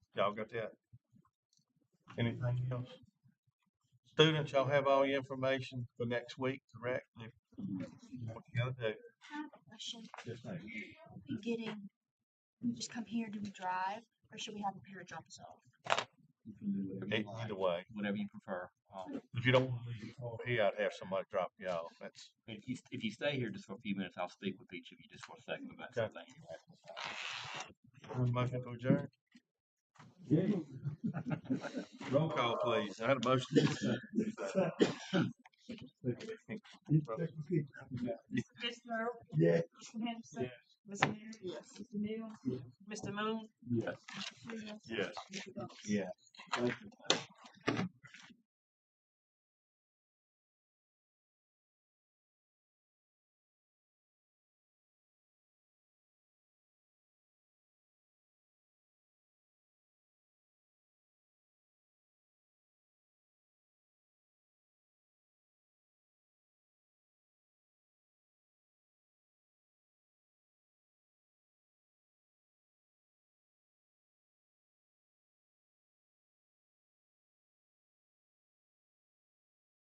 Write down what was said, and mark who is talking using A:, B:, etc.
A: Y'all got that? Anything else? Students, y'all have all your information for next week, correct? If- What you gotta do?
B: I have a question.
A: Just like-
B: We getting, we just come here, do we drive, or should we have a parent drop us off?
C: You can do whatever
A: e-
C: you like,
A: Either way,
C: whatever you prefer. Um,
A: if you don't wanna leave before here, I'd have somebody drop y'all. That's,
C: if you if you stay here just for a few minutes, I'll speak with each of you just for a second about
A: Okay.
C: something.
A: motion to adjourn. Roll call, please. I had a motion.
D: Ms. Earl?
E: Yes.
D: Mr. Henderson? Ms. Mary? Yes. Mr. Mills? Mr. Moon?
C: Yes.
D: Mr. Freeman?
A: Yes.
D: Mr. Dawes?
A: Yeah.